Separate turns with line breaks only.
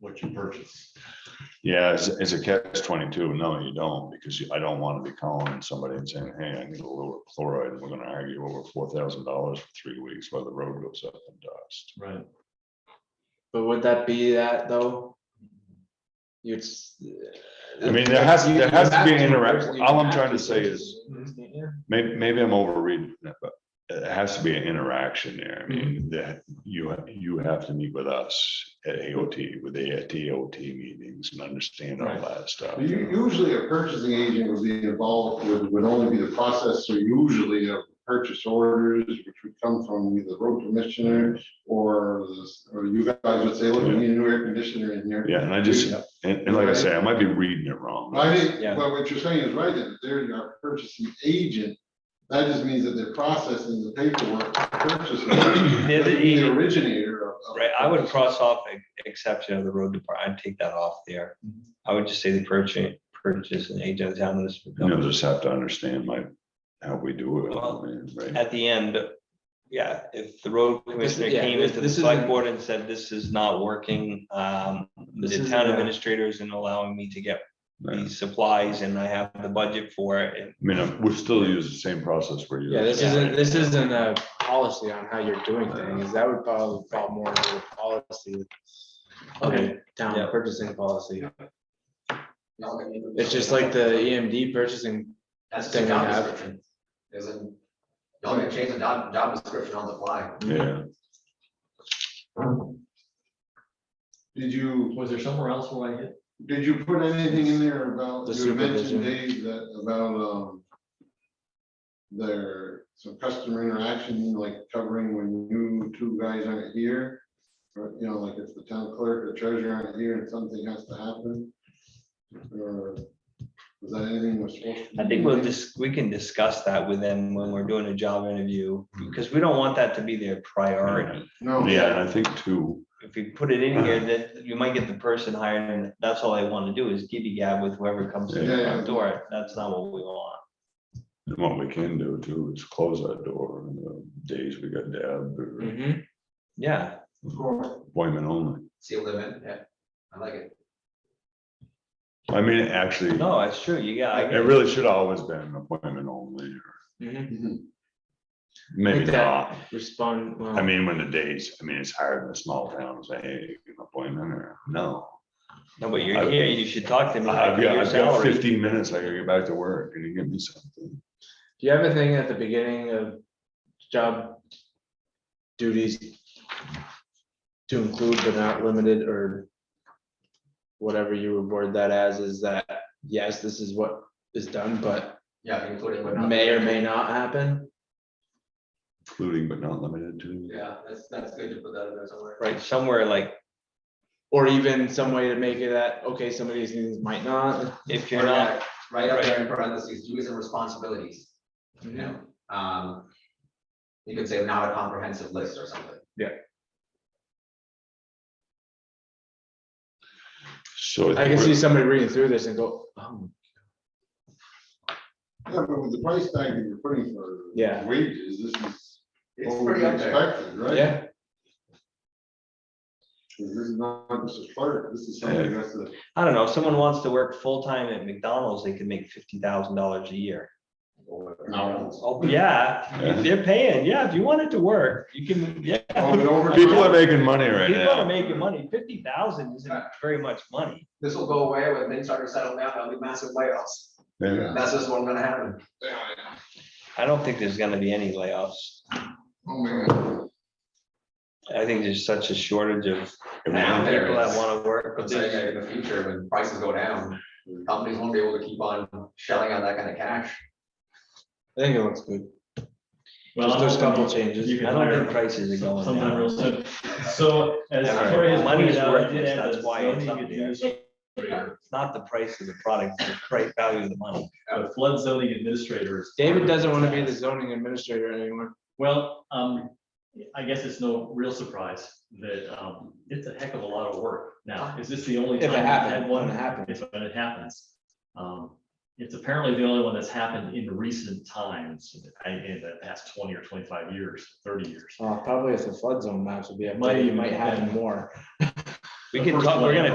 what you purchase.
Yeah, it's, it's a catch twenty-two. No, you don't, because you- I don't want to be calling somebody and saying, hey, I need a little chloride. and We're gonna argue over four thousand dollars for three weeks while the road goes up in dust.
Right.
But would that be that though? You'd. s-
I mean, there has-
You-
there
you
has to
have
be an
purchase-
interact-
you
all I'm
have
trying to
purchase
say
it,
is-
can't you?
Maybe, maybe I'm overreading it, but it has to be an interaction there. I mean, that you, you have to meet with us at AOT, with the AOT meetings and understand all
Right.
that stuff.
U- Usually a purchasing agent would be involved, would, would only be the processor usually of purchase orders, which would come from either the road commissioner or, this- or you guys would say, look, we need a new air conditioner in here.
Yeah, and I just, and, and like I say, I might be reading it wrong.
I think,
Yeah.
but what you're saying is right, that they're your purchasing agent. That just means that they're processing the paperwork, purchasing.
They're the agent.
originator of. of-
Right, I would cross off e- exception of the road department, I'd take that off there.
Mm-hmm.
I would just say the purchase, purchase and agent of the town municipal
You'll
government.
just have to understand like how we do it. I mean, right?
At the end, yeah, if the road commissioner
yeah,
came into the
this
select
isn't-
board and said, this is not working, um,
This
the
isn't
town
a-
administrator isn't allowing me to get
Yeah. I
these supplies and I have the budget for it. and
mean, uh, we still use the same process we're using.
Yeah, Uh-huh. this
Yeah.
isn't, this isn't a policy on how you're doing things, that would probably fall more into the policy.
Okay.
Okay, town
Yeah.
purchasing policy, it's just like the EMD purchasing,
That's just
thing
a
we
job
have.
description. Isn't, y'all can change the job, job description on the fly.
Yeah,
Did you?
Was there somewhere else where I hit?
Did you put anything in there about,
The
you had mentioned
supervision.
Dave that about, um. Their, some customer interaction, like covering when you two guys aren't here. Or, you know, like if the town clerk or treasurer aren't here and something has to happen. Or was that anything was supposed to?
I
be
think we'll
in there?
just, we can discuss that with them when we're doing a job interview,
Mm-hmm.
because we don't want that to be their priority.
No.
yeah, and I think too,
if you put it in here,
Uh-huh.
that you might get the person hired, and that's all they want to do is giddy gab with whoever comes in the
Yeah.
front door. That's not what we want.
and what we can do too is close that door in the days we got dabbed
Mm.
or
Mhm.
Yeah,
appointment only.
See a live in, yeah, I like it.
I mean, actually,
no, it's true. You got, I Mm-hmm.
it
get it.
really should always been an appointment only, or Mm-hmm.
mhm.
Mhm.
maybe
Like that.
not.
respond, well.
I mean, when the days, I mean, it's hard in a small town, say, hey, you got an appointment or no.
no, but you're
I've-
here, you should talk to me.
I've
about
got,
your
I've got
salary.
fifteen minutes, I gotta get back to work, and you give me something.
Do you have a thing at the beginning of job duties to include but not limited or whatever you would word that as, is that, yes, this is what is done, but
Yeah, including but not.
may or may not happen?
Including but not limited to.
Yeah, that's, that's good to put that in there somewhere.
Right, somewhere like,
Or even some way to make it that, okay, some of these things might not.
if
Or
you're not,
that, Right up there in parentheses, duties and responsibilities, you know, um. You could say not a comprehensive list or something.
So.
I can see somebody reading through this and go, oh,
Yeah, but with the price tag that you're putting for.
Yeah.
Wages, this is.
It's
what
pretty
we
up there.
Expected, right?
yeah,
This is not just a flirt, this is something that's uh, a.
I don't know, if someone wants to work full-time at McDonald's, they could make fifty thousand dollars a year.
Or-
No.
Oh, yeah, they're paying, yeah, if you wanted to work, you can, yeah.
Oh, but over-
People are making money right now.
People are making money, fifty thousand isn't very much money.
This will go away when things start to settle down, there'll be massive layoffs,
Yeah.
that's just what's gonna happen.
I don't think there's gonna be any layoffs.
Oh, my God.
I think there's such a shortage of people
Now there
that
is.
wanna work.
I'm saying that in the future, when prices go down, companies won't be able to keep on shelling out that kind of cash.
I think it looks good.
Well,
Just those
I'm
couple
hoping
changes.
you can
I don't
hire
think prices are going
Sometime
down.
real soon. So as
All right,
Cory has
money's
pointed out, I
worthless,
did add
that's
the
why it's
zoning
up there.
administrator,
It's not the price of the product, it's the price value of the money.
The uh, flood zoning administrators.
David doesn't want to be the zoning administrator anymore.
Well, um, I guess it's no real surprise that, um, it's a heck of a lot of work. Now, is this the only
If it
time? we've
happened,
had
when it
one?
happened.
It's when it happens. Um, It's apparently the only one that's happened in recent times, I- in the past twenty or twenty-five years, thirty years.
Uh, probably if the flood zone maps would be,
Might
updated, it
even
might
be
happen
better.
more.
We
The
can
first
talk,
one.
we're gonna